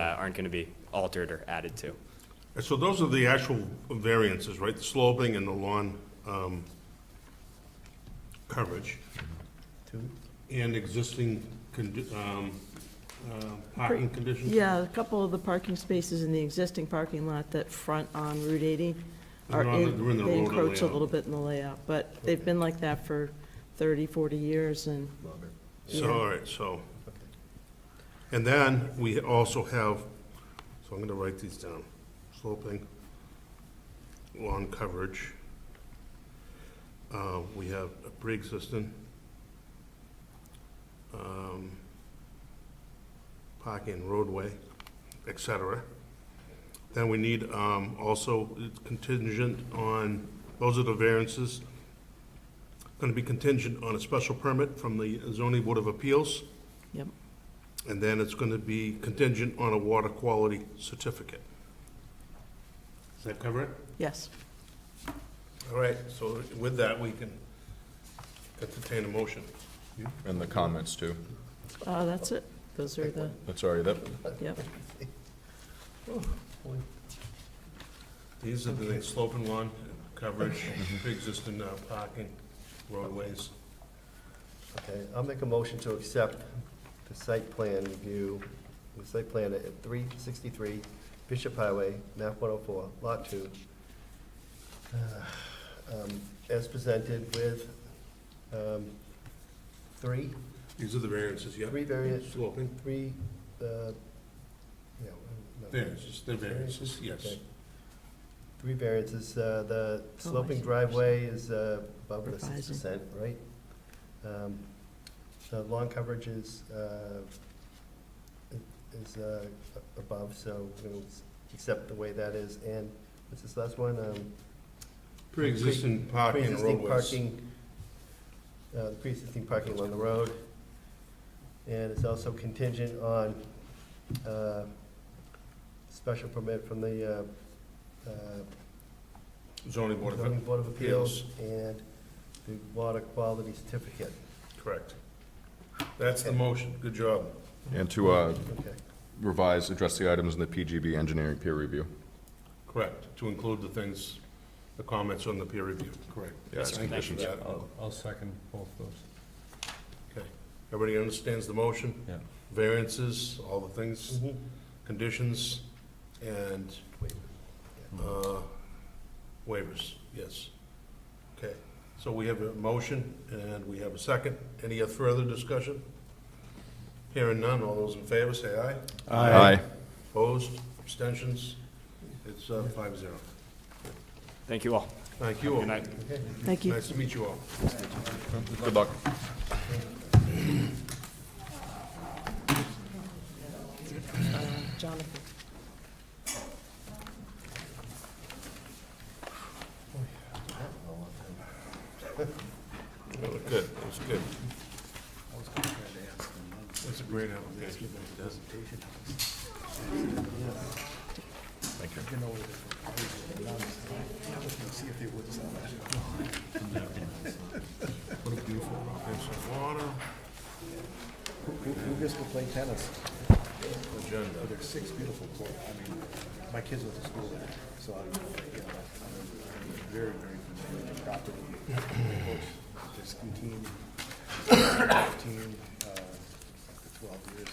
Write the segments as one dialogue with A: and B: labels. A: uh, aren't going to be altered or added to.
B: And So those are the actual variances, right? The sloping and the lawn um, coverage. And existing condi- um, uh, parking conditions?
C: Yeah, a couple of the parking spaces in the existing parking lot that front on Route 80 are,
B: They're on the- they're in
C: en-
B: the
C: they
B: road
C: encroach a
B: layout.
C: little bit in the layout, but they've been like that for 30, 40 years, and,
B: So, all right, so. And then we also have, so I'm going to write these down. Sloping, lawn coverage. Uh, We have a pre-existing. um, Parking roadway, et cetera. Then we need um, also it's contingent on, those are the variances going to be contingent on a special permit from the zoning board of appeals,
C: yep,
B: and then it's going to be contingent on a water quality certificate. Does that cover it?
C: yes.
B: All right, so with that, we can entertain a motion.
D: And the comments too.
C: Uh, That's it. Those are the,
D: That's already, that,
C: yep.
B: These are the slope and lawn coverage, pre-existing uh, parking, roadways.
E: Okay, I'll make a motion to accept the site plan review, the site plan at three sixty-three Bishop Highway, map one oh four, lot two. uh, um, As presented with, um, three,
B: These are the variances, yeah.
E: three variant,
B: Sloping,
E: three, uh, yeah. no.
B: variances, they're variances, yes.
E: Okay. Three variances, uh, the
C: Oh, I
E: sloping
C: see.
E: driveway is uh, above the six
C: Revising.
E: percent, right? Um, The lawn coverage is, uh, is uh, a- above, so we'll s- accept the way that is, and what's this last one? Um,
B: Pre-existing parking, roadways.
E: Pre-existing parking, uh, the pre-existing parking along the road, and it's also contingent on, uh, special permit from the, uh, uh,
B: Zoning board of,
E: zoning board of appeals and the water quality certificate.
B: correct. That's the motion, good job.
D: and to uh,
E: Okay,
D: revise, address the items in the PGB engineering peer review.
B: Correct, to include the things, the comments on the peer review, correct.
D: Yeah,
A: Yes,
D: as
A: sir. Thank you.
D: conditions.
B: That-
F: I'll, I'll second both those.
B: Okay. Everybody understands the motion?
F: Yeah.
B: Variances, all the things,
A: Mm-hmm.
B: conditions, and uh, waivers, yes. Okay, so we have a motion and we have a second. Any further discussion? Hearing none, all those in favor, say aye.
D: Aye.
B: Opposed, abstentions? It's uh, five zero.
A: Thank you all.
B: Thank you all.
A: Good night.
C: Thank you.
B: Nice to meet you all.
D: Good luck.
C: Jonathan.
B: That was good, that was good. That's a great application. What a beautiful application. Water
G: Who who gets to play tennis?
B: agenda.
G: But there's six beautiful courts. I mean, my kids went to school there, so I'm, you know, I'm very, very familiar with the property. Of course, The ski team, fifteen, uh, twelve years.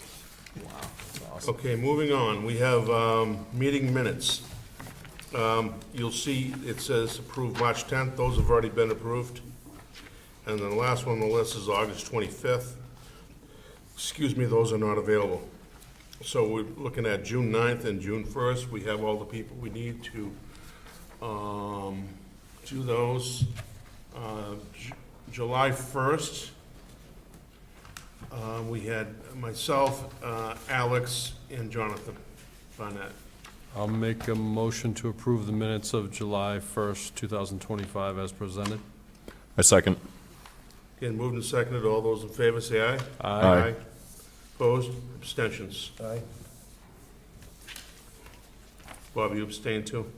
B: Okay, moving on, we have um, meeting minutes. Um, You'll see it says approved March 10th, those have already been approved. And then the last one on the list is August 25th. Excuse me, those are not available. So we're looking at June 9th and June 1st, we have all the people we need to um, do those. Uh, Ju- July 1st, uh, we had myself, uh, Alex, and Jonathan Barnett.
F: I'll make a motion to approve the minutes of July 1st, 2025 as presented.
D: I second.
B: Again, moved and seconded, all those in favor say aye.
D: Aye.
B: Opposed, abstentions.
E: Aye?
B: Bob, you abstain too?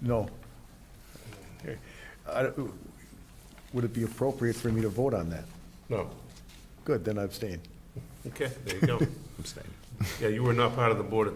G: No. I don't- Would it be appropriate for me to vote on that?
B: No.
G: Good, then I abstain.
B: Okay, there you go. Abstain. Yeah, you were not part of the board at